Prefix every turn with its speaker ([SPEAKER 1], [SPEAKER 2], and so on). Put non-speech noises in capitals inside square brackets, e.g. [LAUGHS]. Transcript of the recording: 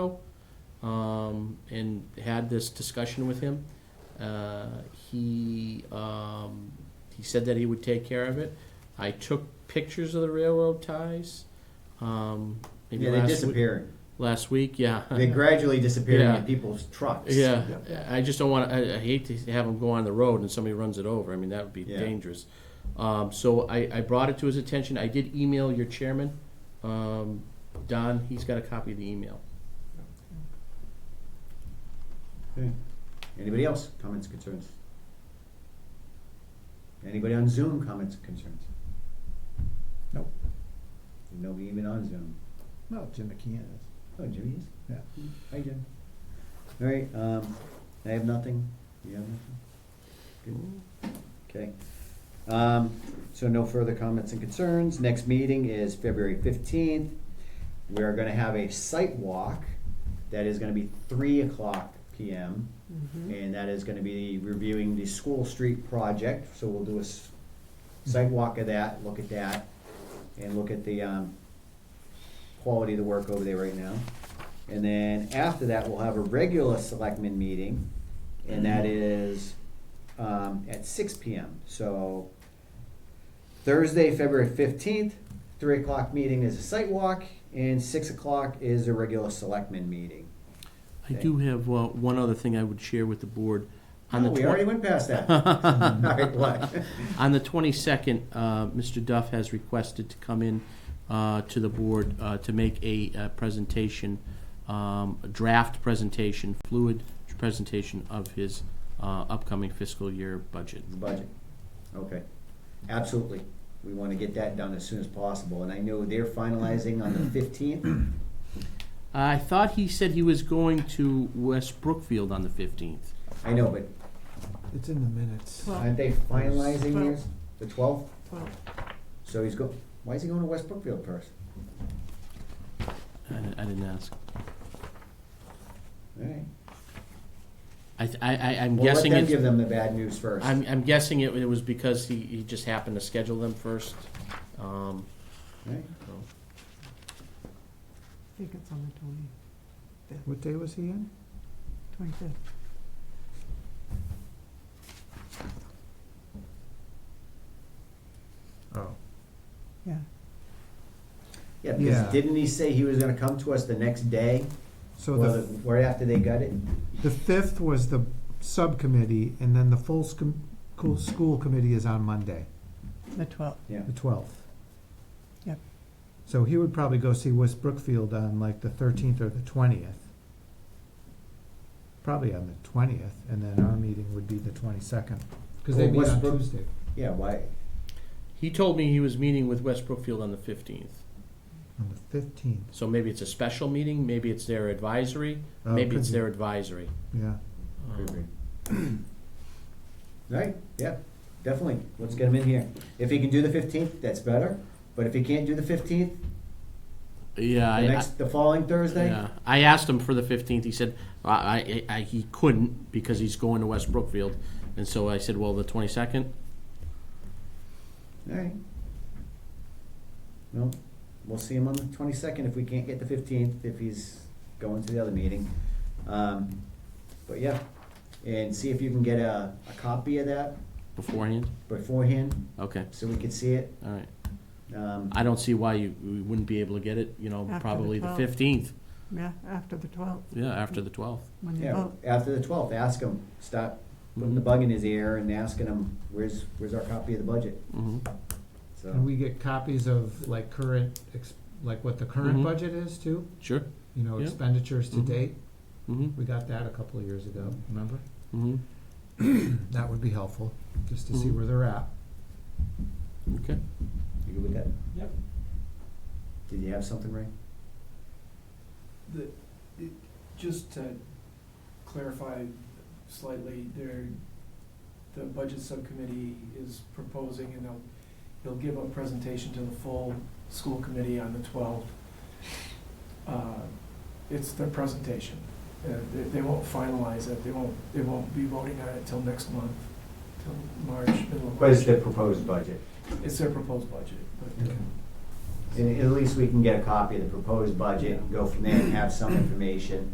[SPEAKER 1] um, and had this discussion with him. Uh, he um, he said that he would take care of it. I took pictures of the railroad ties. Um, maybe
[SPEAKER 2] Yeah, they're
[SPEAKER 1] last wee-
[SPEAKER 2] disappearing.
[SPEAKER 1] last week,
[SPEAKER 2] [LAUGHS]
[SPEAKER 1] yeah.
[SPEAKER 2] They're gradually disappearing
[SPEAKER 1] Yeah.
[SPEAKER 2] in people's trucks.
[SPEAKER 1] Yeah, I just don't want to. I, I hate to have them go on the road and somebody runs it over. I mean, that would be
[SPEAKER 2] Yeah.
[SPEAKER 1] dangerous. Um, so I, I brought it to his attention. I did email your chairman, um, Don. He's got a copy of the email.
[SPEAKER 2] Anybody else? Comments, concerns? Anybody on Zoom? Comments, concerns?
[SPEAKER 3] Nope.
[SPEAKER 2] Nobody even on Zoom.
[SPEAKER 3] No, Jim McKeon is.
[SPEAKER 2] Oh, Jimmy is?
[SPEAKER 3] Yeah.
[SPEAKER 2] Hi, Jim. All right, um, I have nothing. You have nothing? Okay. Um, so no further comments and concerns. Next meeting is February fifteenth. We are gonna have a site walk that is gonna be three o'clock PM. And that is gonna be reviewing the school street project, so we'll do a s- site walk of that, look at that, and look at the, um, quality of the work over there right now. And then after that, we'll have a regular selectmen meeting, and that is um, at six PM. So Thursday, February fifteenth, three o'clock meeting is a site walk, and six o'clock is a regular selectmen meeting.
[SPEAKER 1] I do have uh, one other thing I would share with the board. On
[SPEAKER 2] Oh,
[SPEAKER 1] the
[SPEAKER 2] we
[SPEAKER 1] twen-
[SPEAKER 2] already went
[SPEAKER 1] [LAUGHS]
[SPEAKER 2] past that. [LAUGHS] All right, what? [LAUGHS]
[SPEAKER 1] On the 22nd, uh, Mr. Duff has requested to come in uh, to the board uh, to make a uh, presentation, um, a draft presentation, fluid presentation of his uh, upcoming fiscal year budget.
[SPEAKER 2] The budget. Okay, absolutely. We want to get that done as soon as possible, and I know they're finalizing on the
[SPEAKER 1] [CLEARS THROAT]
[SPEAKER 2] fifteenth.
[SPEAKER 1] I thought he said he was going to West Brookfield on the 15th.
[SPEAKER 2] I know, but
[SPEAKER 3] It's in the minutes.
[SPEAKER 4] Well-
[SPEAKER 2] aren't they finalizing theirs? The twelfth?
[SPEAKER 4] Well,
[SPEAKER 2] So he's go, why is he going to West Brookfield first?
[SPEAKER 1] I I didn't ask.
[SPEAKER 2] All right.
[SPEAKER 1] I, th- I- I- I'm
[SPEAKER 2] We'll let
[SPEAKER 1] guessing
[SPEAKER 2] them give
[SPEAKER 1] it,
[SPEAKER 2] them the bad news first.
[SPEAKER 1] I'm I'm guessing it it was because he he just happened to schedule them first. Um,
[SPEAKER 2] Right?
[SPEAKER 1] so.
[SPEAKER 4] I think it's on the twenty,
[SPEAKER 3] What day was he in?
[SPEAKER 4] twenty-fifth.
[SPEAKER 3] Oh.
[SPEAKER 4] Yeah,
[SPEAKER 2] Yeah, because
[SPEAKER 3] Yeah.
[SPEAKER 2] didn't he say he was gonna come to us the next day,
[SPEAKER 3] So
[SPEAKER 2] or
[SPEAKER 3] Oh, the,
[SPEAKER 2] the, right after they got it?
[SPEAKER 3] the fifth was the subcommittee, and then the full scom- cool- school committee is on Monday,
[SPEAKER 4] the twelfth.
[SPEAKER 2] Yeah,
[SPEAKER 3] the twelfth.
[SPEAKER 4] Yep.
[SPEAKER 3] So he would probably go see West Brookfield on like the thirteenth or the twentieth. Probably on the twentieth, and then our meeting would be the twenty-second, because they
[SPEAKER 2] Well,
[SPEAKER 3] meet
[SPEAKER 2] West
[SPEAKER 3] on
[SPEAKER 2] Brook-
[SPEAKER 3] Tuesday.
[SPEAKER 2] yeah, why,
[SPEAKER 1] He told me he was meeting with West Brookfield on the fifteenth.
[SPEAKER 3] On the fifteenth,
[SPEAKER 1] So maybe it's a special meeting, maybe it's their advisory,
[SPEAKER 3] Oh,
[SPEAKER 1] maybe
[SPEAKER 3] could
[SPEAKER 1] it's
[SPEAKER 3] be.
[SPEAKER 1] their advisory.
[SPEAKER 3] yeah.
[SPEAKER 2] could be.
[SPEAKER 3] Hmm.
[SPEAKER 2] Right, yeah, definitely, let's get him in here. If he can do the fifteenth, that's better, but if he can't do the fifteenth,
[SPEAKER 1] Yeah,
[SPEAKER 2] the
[SPEAKER 1] I, I,
[SPEAKER 2] next, the following Thursday?
[SPEAKER 1] yeah. I asked him for the fifteenth, he said, I, I, I, he couldn't because he's going to West Brookfield. And so I said, well, the twenty-second,
[SPEAKER 2] Alright. Well, we'll see him on the twenty-second if we can't get the fifteenth, if he's going to the other meeting. Um, but yeah, and see if you can get a, a copy of that
[SPEAKER 1] beforehand?
[SPEAKER 2] beforehand,
[SPEAKER 1] Okay,
[SPEAKER 2] so we could see it.
[SPEAKER 1] all right.
[SPEAKER 2] Um,
[SPEAKER 1] I don't see why you, we wouldn't be able to get it, you know,
[SPEAKER 4] After the
[SPEAKER 1] probably the
[SPEAKER 4] 12th.
[SPEAKER 1] fifteenth,
[SPEAKER 4] Yeah, after the twelfth,
[SPEAKER 1] yeah, after the twelfth.
[SPEAKER 4] when you
[SPEAKER 2] yeah,
[SPEAKER 4] vote.
[SPEAKER 2] after the twelfth, ask him, stop putting the bug in his ear and asking him, where's, where's our copy of the budget?
[SPEAKER 1] Mm-hmm.
[SPEAKER 3] And
[SPEAKER 2] So,
[SPEAKER 3] we get copies of like current, ex- like what the current
[SPEAKER 1] Mhm.
[SPEAKER 3] budget is too,
[SPEAKER 1] Sure,
[SPEAKER 3] you know,
[SPEAKER 1] Yeah.
[SPEAKER 3] expenditures to
[SPEAKER 1] Mhm.
[SPEAKER 3] date.
[SPEAKER 1] mm-hmm,
[SPEAKER 3] We got that a couple of years ago, remember?
[SPEAKER 1] mm-hmm,
[SPEAKER 3] That would be helpful, just to see
[SPEAKER 1] Mhm.
[SPEAKER 3] where they're at.
[SPEAKER 1] okay.
[SPEAKER 2] you good with that?
[SPEAKER 5] Yep.
[SPEAKER 2] Did you have something, Ray?
[SPEAKER 5] The, it, just to clarify slightly, there, the budget subcommittee is proposing, and they'll, they'll give a presentation to the full school committee on the twelfth. Uh, It's their presentation, Uh, they, they won't finalize it, they won't, they won't be voting on it till next month, till March, middle of March.
[SPEAKER 2] proposed budget?
[SPEAKER 5] It's their proposed budget, but. uh,
[SPEAKER 3] Okay.
[SPEAKER 2] And at least we can get a copy of the proposed budget, and go from there and have some information.